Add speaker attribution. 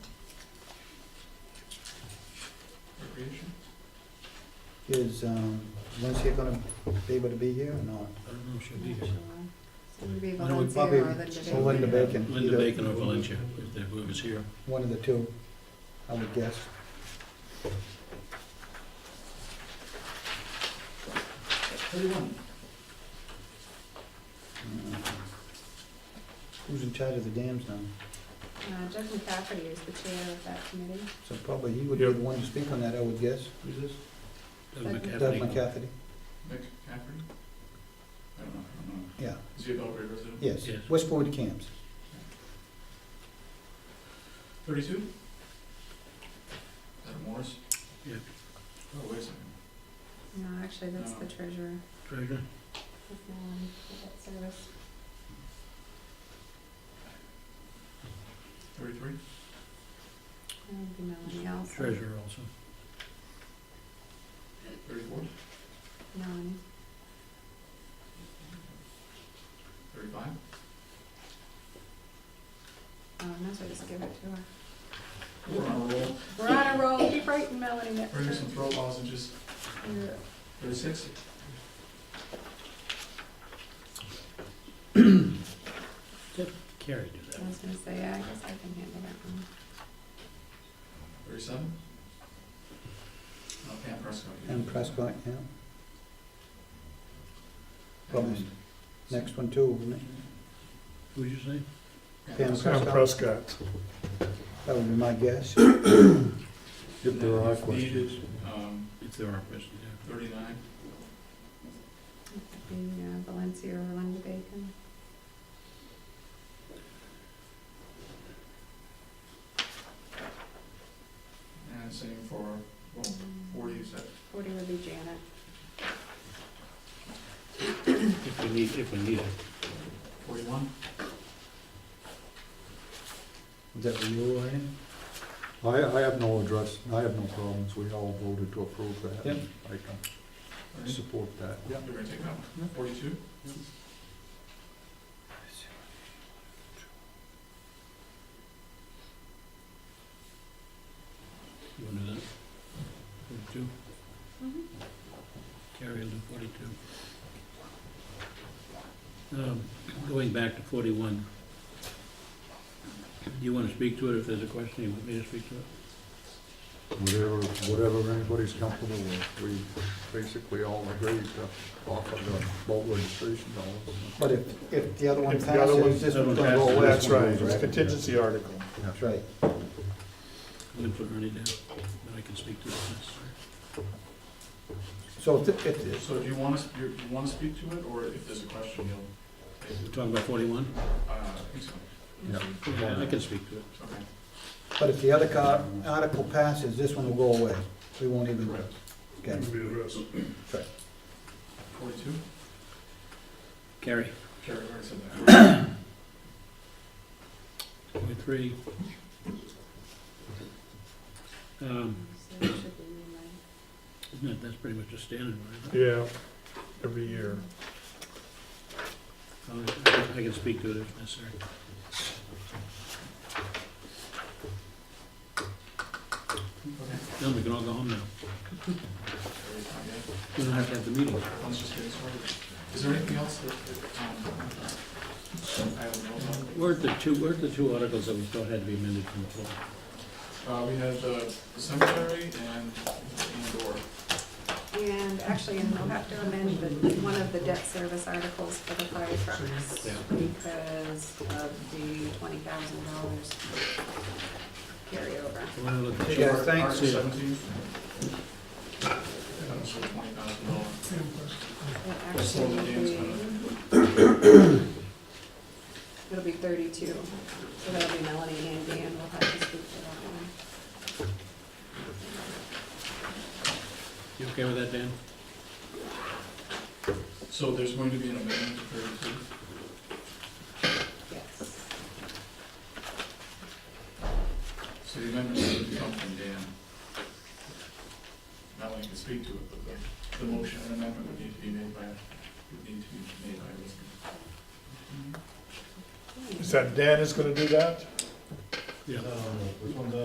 Speaker 1: Recreation?
Speaker 2: Is, um, Lindsay gonna be able to be here or not?
Speaker 3: I don't know if she'll be here.
Speaker 4: So it would be
Speaker 3: I know
Speaker 4: Valencia
Speaker 3: it's
Speaker 4: or
Speaker 2: probably-
Speaker 4: Linda
Speaker 2: Or Linda
Speaker 4: Baker.
Speaker 2: Bacon.
Speaker 3: Linda
Speaker 2: either-
Speaker 3: Bacon or Valencia, if they whoever's here.
Speaker 2: One of the two, I would guess.
Speaker 1: Thirty-one.
Speaker 2: Mm. Who's in charge of the dams now?
Speaker 4: Uh, Jeff McCafferty is the chair of that committee.
Speaker 2: So probably he would be the
Speaker 1: Yep.
Speaker 2: one to speak on that, I would guess.
Speaker 1: Who's this?
Speaker 3: Doug
Speaker 4: Doug
Speaker 2: Doug
Speaker 3: McCaffrey.
Speaker 2: McCafferty,
Speaker 1: Nick Cafferty? I don't know, I don't know.
Speaker 2: yeah,
Speaker 1: Is he a Belgrade resident?
Speaker 2: yes.
Speaker 3: Yes.
Speaker 2: Westport Camps.
Speaker 1: Thirty-two? Is that Morris?
Speaker 3: Yeah.
Speaker 1: Oh, wait a second.
Speaker 4: No, actually, that's the
Speaker 1: No.
Speaker 4: treasurer.
Speaker 3: Treasurer.
Speaker 4: That's the one for that service.
Speaker 1: Thirty-three?
Speaker 4: That would be Melanie also.
Speaker 3: Treasurer also.
Speaker 1: Thirty-four?
Speaker 4: Melanie.
Speaker 1: Thirty-five?
Speaker 4: Oh, and that's what I just give it to her.
Speaker 1: We're on a roll.
Speaker 4: We're on a roll. Keep writing Melanie next
Speaker 1: Bring us some
Speaker 4: time.
Speaker 1: throw balls and just,
Speaker 4: Yeah.
Speaker 1: thirty-six?
Speaker 3: Carrie do that.
Speaker 4: I was gonna say, yeah, I guess I can handle that one.
Speaker 1: Thirty-seven? No, Pam Prescott. you-
Speaker 2: And Prescott, yeah. Probably Next one too, wouldn't it?
Speaker 3: What'd you say?
Speaker 2: Pam
Speaker 5: Sam
Speaker 2: Prescott,
Speaker 5: Prescott.
Speaker 2: that would be my guess.
Speaker 5: If there are questions.
Speaker 1: Needed, um,
Speaker 3: If there are questions, yeah.
Speaker 1: thirty-nine?
Speaker 4: That would be, uh, Valencia or Linda Bacon.
Speaker 1: And same for, well,
Speaker 4: Mm,
Speaker 1: forty, is that,
Speaker 4: Forty would be Janet.
Speaker 3: If we need, if we need it.
Speaker 1: forty-one?
Speaker 2: Is that what you were in?
Speaker 5: I, I have no address, I have no problems, we all voted to approve that.
Speaker 2: Yep.
Speaker 5: I can support that, yeah.
Speaker 1: You're gonna take that one? Forty-two?
Speaker 3: You wanna do that? Forty-two?
Speaker 4: Mhm.
Speaker 3: Carrie will do forty-two. Um, Going back to forty-one. Do you wanna speak to it if there's a question? You want me to speak to it?
Speaker 5: Whatever, whatever anybody's comfortable with, we basically all agreed to offer the boat registration dollars.
Speaker 2: But if, if the other one
Speaker 6: If the other one-
Speaker 2: passes, this one's gonna go
Speaker 3: Well,
Speaker 2: away.
Speaker 6: That's right, it's a
Speaker 5: Right.
Speaker 6: contingency article.
Speaker 2: That's right.
Speaker 3: I'm gonna put Ernie down, but I can speak to it. if
Speaker 2: So if, the- if, the-
Speaker 1: So do you want us, you you want to speak to it, or if there's a question, you'll take
Speaker 3: We're
Speaker 1: it?
Speaker 3: talking about forty-one?
Speaker 1: Uh, I think so,
Speaker 5: Yeah.
Speaker 3: Yeah, I can speak to it.
Speaker 1: okay.
Speaker 2: but if the other car, article passes, this one will go away. We won't even,
Speaker 1: Correct.
Speaker 2: okay.
Speaker 1: Forty-two?
Speaker 3: Carrie?
Speaker 1: Carrie, I already said that.
Speaker 3: Forty-three. Um,
Speaker 4: So it should be you, Mike.
Speaker 3: isn't it- that's pretty much a standard, right?
Speaker 6: Yeah, every year.
Speaker 3: I'll- Oh, I can speak to it if necessary.
Speaker 1: Okay.
Speaker 3: Then we can all go home now.
Speaker 1: Carrie's not yet.
Speaker 3: We don't have to have the meeting.
Speaker 1: Let's just get started. Is there anything else that, that, um, I don't know
Speaker 3: Where are the two, where are the two articles that we thought had to be amended from the floor?
Speaker 1: about? Uh, we have the cemetery and, and door.
Speaker 4: And actually, and we'll have to amend the, one of the debt service articles for the fire trucks
Speaker 3: Yeah.
Speaker 4: because of the twenty thousand dollars carryover.
Speaker 3: I wanna look at-
Speaker 2: Yeah,
Speaker 1: Art-
Speaker 2: thanks.
Speaker 1: Article seventeen. That was for twenty thousand dollars.
Speaker 4: It
Speaker 1: Just hold
Speaker 4: actually
Speaker 1: the
Speaker 4: will
Speaker 1: gains
Speaker 4: be, it'll be thirty-two, so that'll be Melanie and Dan will have to speak to that one.
Speaker 3: You okay with that, Dan?
Speaker 1: So there's going to be an amendment to thirty-two?
Speaker 4: Yes.
Speaker 1: So the amendment would come from Dan. Not only can speak to it, but the, the motion and amendment would need to be made by, would need to be made by Elizabeth.
Speaker 4: Hmm.
Speaker 6: Is that Dan is gonna do that?
Speaker 3: Yeah.